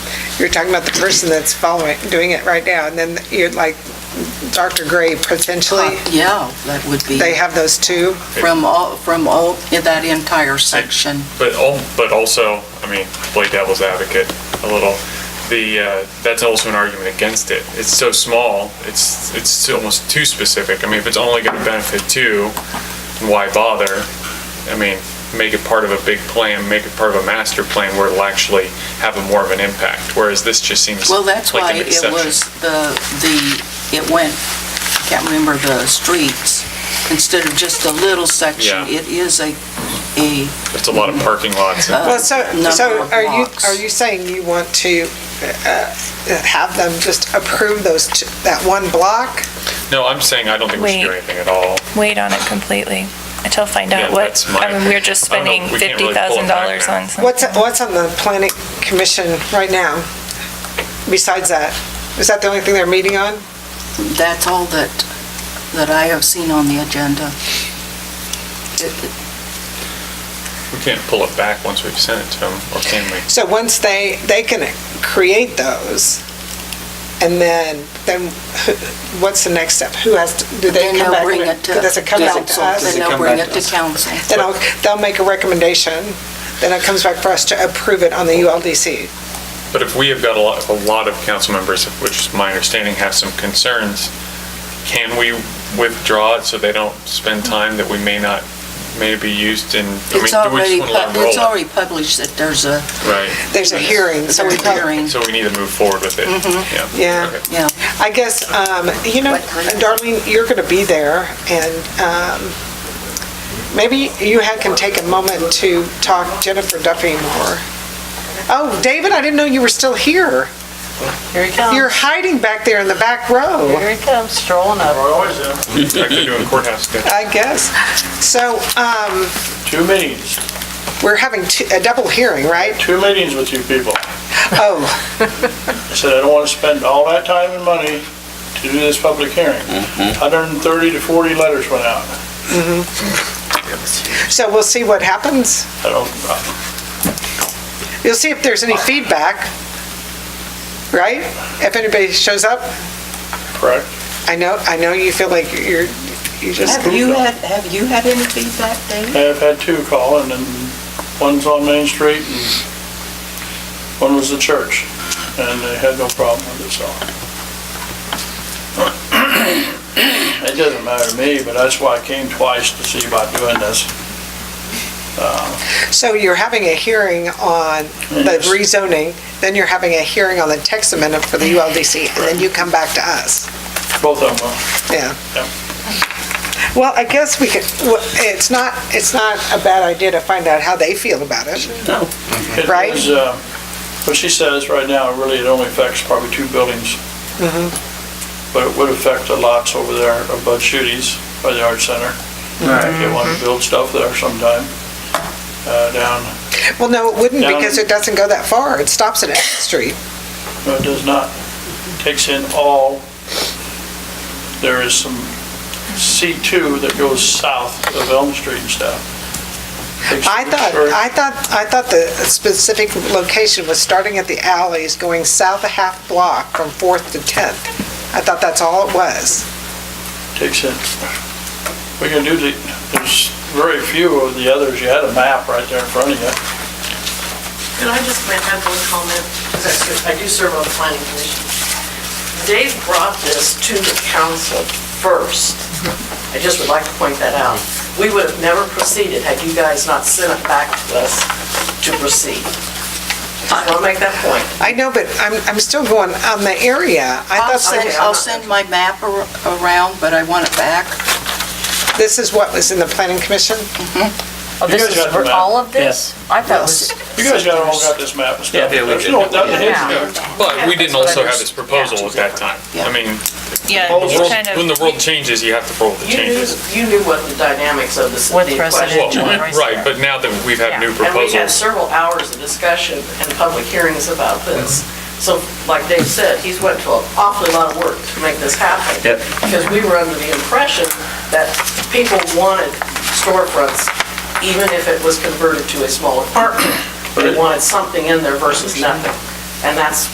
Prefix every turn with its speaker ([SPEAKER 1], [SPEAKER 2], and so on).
[SPEAKER 1] you're talking about the person that's following, doing it right now, and then you're like Dr. Gray potentially,
[SPEAKER 2] Yeah, that would be
[SPEAKER 1] they have those two.
[SPEAKER 2] from all, from all, in that entire section.
[SPEAKER 3] But al- but also, I mean, play devil's advocate a little. The uh, that's also an argument against it. It's so small. It's it's almost too specific. I mean, if it's only going to benefit two, why bother? I mean, make it part of a big plan. Make it part of a master plan where it'll actually have a more of an impact. Whereas this just seems
[SPEAKER 2] Well, that's
[SPEAKER 3] like
[SPEAKER 2] why
[SPEAKER 3] an
[SPEAKER 2] it
[SPEAKER 3] exception.
[SPEAKER 2] was the, the, it went, I can't remember the streets, instead of just a little section.
[SPEAKER 3] Yeah.
[SPEAKER 2] It is a, a,
[SPEAKER 3] It's a lot of parking lots. And,
[SPEAKER 1] Well, so,
[SPEAKER 2] number
[SPEAKER 1] so
[SPEAKER 2] of
[SPEAKER 1] are you,
[SPEAKER 2] blocks.
[SPEAKER 1] are you saying you want to uh, have them just approve those, two- that one block?
[SPEAKER 3] no, I'm saying I don't think we should do
[SPEAKER 4] Wait.
[SPEAKER 3] anything at all.
[SPEAKER 4] wait on it completely until find
[SPEAKER 3] Yeah,
[SPEAKER 4] out what,
[SPEAKER 3] that's my
[SPEAKER 4] I mean, we're just
[SPEAKER 3] opinion. I don't
[SPEAKER 4] spending
[SPEAKER 3] know, we can't really pull it back
[SPEAKER 4] $50,000
[SPEAKER 3] now.
[SPEAKER 4] on something.
[SPEAKER 1] What's, what's on the planning commission right now besides that? Is that the only thing they're meeting on?
[SPEAKER 2] that's all that, that I have seen on the agenda.
[SPEAKER 3] We can't pull it back once we've sent it to them, or can we?
[SPEAKER 1] So once they, they can create those, and then, then who- what's the next step? Who has, to do they
[SPEAKER 2] Then
[SPEAKER 1] come
[SPEAKER 2] they'll
[SPEAKER 1] back?
[SPEAKER 2] bring
[SPEAKER 1] with-
[SPEAKER 2] it to.
[SPEAKER 1] Does it come back to
[SPEAKER 2] council. Then
[SPEAKER 1] us?
[SPEAKER 2] they'll bring it to council.
[SPEAKER 1] Then I'll- they'll make a recommendation, then it comes back for us to approve it on the ULDC.
[SPEAKER 3] But if we have got a lot, a lot of council members, which is my understanding, have some concerns, can we withdraw it so they don't spend time that we may not, may be used in? I mean, do we
[SPEAKER 2] It's
[SPEAKER 3] just
[SPEAKER 2] already,
[SPEAKER 3] wanna let
[SPEAKER 2] pub-
[SPEAKER 3] them
[SPEAKER 2] it's
[SPEAKER 3] roll?
[SPEAKER 2] already published that there's a,
[SPEAKER 3] Right,
[SPEAKER 1] There's a hearing, so we
[SPEAKER 2] there's a
[SPEAKER 1] probably,
[SPEAKER 2] hearing.
[SPEAKER 3] so we need to move forward with it. Yeah.
[SPEAKER 2] Mm-hmm.
[SPEAKER 1] Yeah.
[SPEAKER 3] Okay.
[SPEAKER 2] Yeah,
[SPEAKER 1] I guess, um, you know, Darlene, you're going to be there, and um, maybe you had- can take a moment to talk Jennifer Duffy more. Oh, David, I didn't know you were still here.
[SPEAKER 5] Here he comes.
[SPEAKER 1] You're hiding back there in the back row,
[SPEAKER 5] Here he comes strolling up.
[SPEAKER 3] Like they're doing courthouse stuff.
[SPEAKER 1] I guess. So um,
[SPEAKER 6] Two meetings,
[SPEAKER 1] we're having two- a double hearing, right?
[SPEAKER 6] two meetings with you people.
[SPEAKER 1] Oh,
[SPEAKER 6] I said, I don't want to spend all that time and money to do this public hearing. 130 to 40 letters went out.
[SPEAKER 1] so we'll see what happens.
[SPEAKER 6] I don't, uh,
[SPEAKER 1] You'll see if there's any feedback, right? If anybody shows up,
[SPEAKER 6] correct?
[SPEAKER 1] I know, I know you feel like you're, you just.
[SPEAKER 5] Have you had, have you had any feedback, David?
[SPEAKER 6] I've had two call, and then one's on Main Street, and one was the church, and they had no problem with it, so. It doesn't matter to me, but that's why I came twice to see about doing this.
[SPEAKER 1] So you're having a hearing on the
[SPEAKER 6] Yes.
[SPEAKER 1] rezoning, then you're having a hearing on the text amendment for the ULDC, and then you come back to us.
[SPEAKER 6] Both of them will.
[SPEAKER 1] Yeah.
[SPEAKER 6] Yep.
[SPEAKER 1] Well, I guess we could, well, it's not, it's not a bad idea to find out how they feel about it.
[SPEAKER 6] It
[SPEAKER 1] Right?
[SPEAKER 6] was, uh, What she says right now, really, it only affects probably two buildings.
[SPEAKER 1] Mm-hmm.
[SPEAKER 6] But it would affect the lots over there above Shooties by the art center. If They want to
[SPEAKER 1] Mm-hmm.
[SPEAKER 6] build stuff there sometime, uh, down,
[SPEAKER 1] Well, no, it wouldn't
[SPEAKER 6] Down-
[SPEAKER 1] because it doesn't go that far. It stops at Elm Street.
[SPEAKER 6] no, it does not. Takes in all, there is some C2 that goes south of Elm Street and stuff. Takes-
[SPEAKER 1] I thought, I thought, I thought the specific location was starting at the alleys, going south a half block from Fourth to Tenth. I thought that's all it was.
[SPEAKER 6] takes in. We can do the, there's very few of the others. You had a map right there in front of you.
[SPEAKER 7] Could I just make that one comment? Because that's good. I do serve on the planning commission. Dave brought this to the council first. I just would like to point that out. We would have never proceeded had you guys not sent it back to us to proceed. I want to make that point.
[SPEAKER 1] I know, but I'm, I'm still going on the area. I
[SPEAKER 2] I'll
[SPEAKER 1] thought
[SPEAKER 2] send,
[SPEAKER 1] that
[SPEAKER 2] I'll send my map ar- around, but I want it back.
[SPEAKER 1] this is what was in the planning commission?
[SPEAKER 5] Oh,
[SPEAKER 6] You
[SPEAKER 5] this
[SPEAKER 6] guys
[SPEAKER 5] is
[SPEAKER 6] got the
[SPEAKER 5] for
[SPEAKER 6] map.
[SPEAKER 5] all of this? I thought it was,
[SPEAKER 6] You guys got all got this map and
[SPEAKER 3] Yeah,
[SPEAKER 6] stuff.
[SPEAKER 3] yeah, we
[SPEAKER 6] There's
[SPEAKER 3] did.
[SPEAKER 6] no- nothing hidden there.
[SPEAKER 3] But we didn't also have this proposal at that time.
[SPEAKER 2] Yeah.
[SPEAKER 3] I mean,
[SPEAKER 4] Yeah,
[SPEAKER 3] the
[SPEAKER 4] you
[SPEAKER 3] world-
[SPEAKER 4] kind of-
[SPEAKER 3] when the world changes, you have to roll with the
[SPEAKER 7] You knew,
[SPEAKER 3] changes.
[SPEAKER 7] you knew what the dynamics of this.
[SPEAKER 5] With
[SPEAKER 7] the
[SPEAKER 5] precedent.
[SPEAKER 7] question
[SPEAKER 3] Well,
[SPEAKER 5] Didn't you?
[SPEAKER 3] right, but now that we've had new
[SPEAKER 7] And we had
[SPEAKER 3] proposals,
[SPEAKER 7] several hours of discussion and public hearings about this. So like Dave said, he's went to an awfully lot of work to make this happen. Because we were under the impression that people wanted storefronts, even if it was converted to a small apartment. They wanted something in there versus nothing. And that's